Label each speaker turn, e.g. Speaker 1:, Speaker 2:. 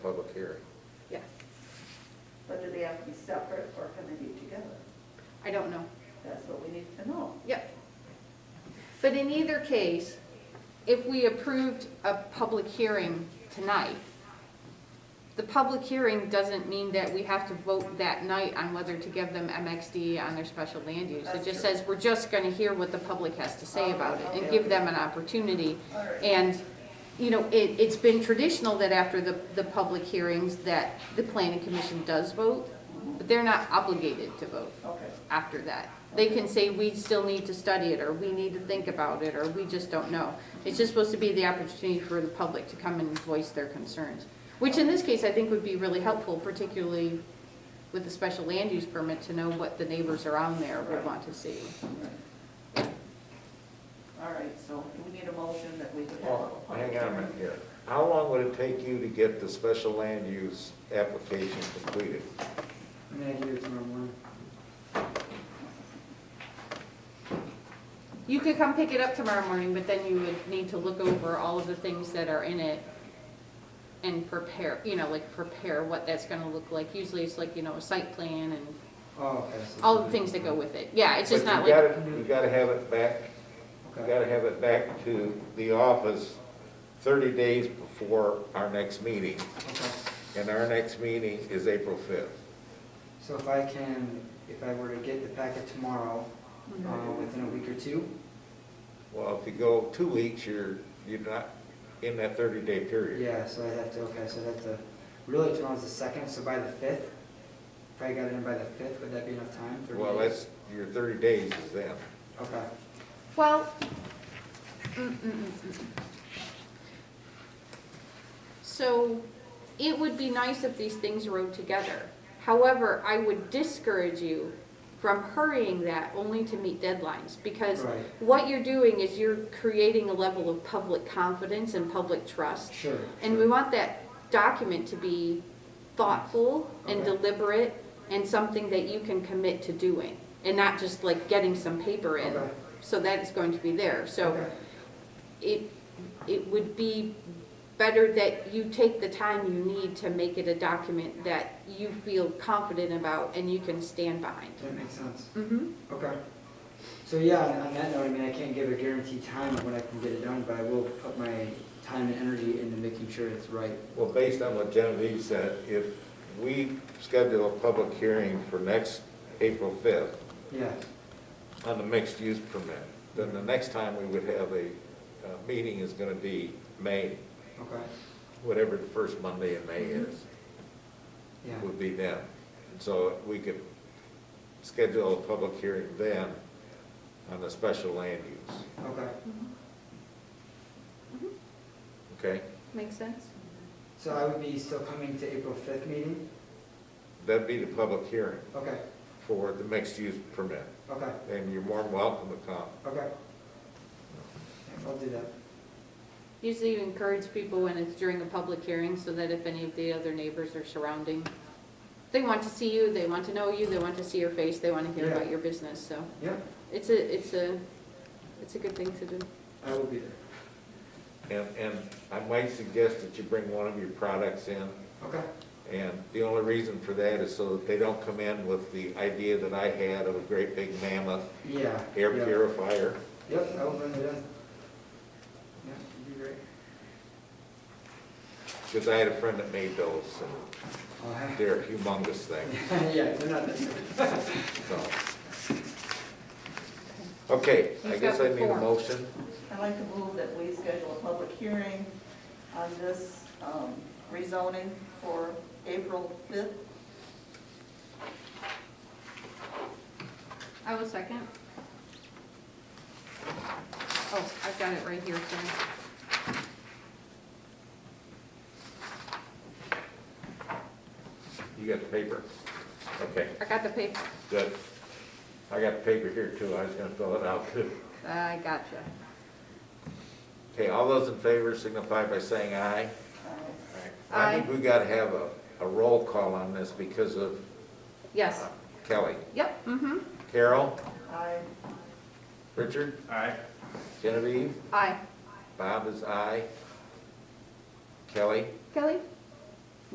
Speaker 1: public hearing.
Speaker 2: Yeah,
Speaker 3: But do they have to be separate or can they be together?
Speaker 2: I don't know.
Speaker 3: That's what we need to know.
Speaker 2: Yep. But in either case, if we approved a public hearing tonight, the public hearing doesn't mean that we have to vote that night on whether to give them MXD on their special land use. It
Speaker 3: That's
Speaker 2: just
Speaker 3: true. Oh,
Speaker 2: says, we're just gonna hear what the public has to say about it and
Speaker 3: Okay.
Speaker 2: give them an opportunity.
Speaker 3: All right.
Speaker 2: And, you know, it, it's been traditional that after the, the public hearings, that the planning commission does vote, but they're not obligated to vote
Speaker 3: Okay,
Speaker 2: after that. They can say, we still need to study it, or we need to think about it, or we just don't know. It's just supposed to be the opportunity for the public to come and voice their concerns, which in this case, I think would be really helpful, particularly with the special land use permit, to know what the neighbors around there would want to see.
Speaker 3: all right. All right, so we need a motion that we could have. a
Speaker 1: Well,
Speaker 3: public
Speaker 1: hang on a
Speaker 3: hearing.
Speaker 1: minute here. How long would it take you to get the special land use application completed?
Speaker 4: I'm gonna do it tomorrow morning.
Speaker 2: You could come pick it up tomorrow morning, but then you would need to look over all of the things that are in it and prepare, you know, like prepare what that's gonna look like. Usually it's like, you know, a site plan and
Speaker 4: Oh, okay. so-
Speaker 2: all the things that go with it. Yeah, it's just
Speaker 1: But
Speaker 2: not
Speaker 1: You
Speaker 2: like,
Speaker 1: gotta, you gotta have it back, you
Speaker 4: Okay,
Speaker 1: gotta have it back to the office thirty days before our next meeting,
Speaker 4: okay.
Speaker 1: and our next meeting is April fifth.
Speaker 4: So if I can, if I were to get the packet tomorrow,
Speaker 2: Mm-hmm.
Speaker 4: uh, within a week or two?
Speaker 1: Well, if you go two weeks, you're, you're not in that thirty-day period.
Speaker 4: Yeah, so I'd have to, okay, so that's the, really tomorrow's the second, so by the fifth? If I got it in by the fifth, would that be enough time? 30
Speaker 1: Well,
Speaker 4: days?
Speaker 1: that's, your thirty days is then.
Speaker 4: Okay,
Speaker 2: well. mm, mm, mm, mm. So it would be nice if these things rode together. However, I would discourage you from hurrying that only to meet deadlines because
Speaker 4: Right.
Speaker 2: what you're doing is you're creating a level of public confidence and public trust.
Speaker 4: sure.
Speaker 2: And we want that document to be thoughtful and
Speaker 4: Okay.
Speaker 2: deliberate and something that you can commit to doing and not just like getting some paper in.
Speaker 4: Okay.
Speaker 2: So that's going to be there. So
Speaker 4: Okay.
Speaker 2: it, it would be better that you take the time you need to make it a document that you feel confident about and you can stand behind.
Speaker 4: That makes sense.
Speaker 2: Mm-hmm.
Speaker 4: Okay. So yeah, on- on that note, I mean, I can't give a guaranteed time of when I can get it done, but I will put my time and energy into making sure it's right.
Speaker 1: Well, based on what Genevieve said, if we schedule a public hearing for next April 5th
Speaker 4: Yeah,
Speaker 1: on the mixed-use permit, then the next time we would have a, uh meeting is going to be May,
Speaker 4: okay,
Speaker 1: whatever the first Monday in May is,
Speaker 4: yeah.
Speaker 1: would be then. So we could schedule a public hearing then on the special land use,
Speaker 4: Okay,
Speaker 2: Mm-hmm.
Speaker 1: okay?
Speaker 2: Make sense?
Speaker 4: so I would be still coming to April 5th meeting?
Speaker 1: That'd be the public hearing
Speaker 4: Okay,
Speaker 1: for the mixed-use permit,
Speaker 4: okay,
Speaker 1: and you're more than welcome to come.
Speaker 4: okay. I'll do that.
Speaker 2: Usually you encourage people when it's during a public hearing, so that if any of the other neighbors are surrounding, they want to see you, they want to know you, they want to see your face, they want to hear about
Speaker 4: Yeah.
Speaker 2: your business, so
Speaker 4: Yeah,
Speaker 2: it's a, it's a, it's a good thing to do.
Speaker 4: I will be there.
Speaker 1: And, and I might suggest that you bring one of your products in,
Speaker 4: Okay,
Speaker 1: and the only reason for that is so that they don't come in with the idea that I had of a great big mammoth
Speaker 4: yeah.
Speaker 1: air
Speaker 4: yeah.
Speaker 1: purifier.
Speaker 4: Yep, I will bring it in. Yeah, it'd be great.
Speaker 1: Because I had a friend that made those, and
Speaker 4: I'll have-
Speaker 1: they're humongous things,
Speaker 4: Yeah, they're not,
Speaker 1: so. Okay, I
Speaker 2: He's
Speaker 1: guess
Speaker 2: got
Speaker 1: I
Speaker 2: the
Speaker 1: need a
Speaker 2: form.
Speaker 1: motion.
Speaker 3: I'd like to move that we schedule a public hearing on this um, rezoning for April 5th.
Speaker 2: I will second. Oh, I've got it right here, sorry.
Speaker 1: You got the paper? Okay,
Speaker 2: I got the paper,
Speaker 1: good. I got the paper here too, I was gonna fill it out too.
Speaker 2: I gotcha.
Speaker 1: Okay, all those in favor signify by saying aye.
Speaker 3: Uh,
Speaker 1: I think we gotta have a, a roll call on this because of uh,
Speaker 2: Yes,
Speaker 1: Kelly.
Speaker 2: yep, mm-hmm,
Speaker 1: Carol,
Speaker 3: I,
Speaker 1: Richard,
Speaker 5: Aye.
Speaker 1: Genevieve,
Speaker 2: aye.
Speaker 1: Bob is aye. Kelly,
Speaker 2: Kelly?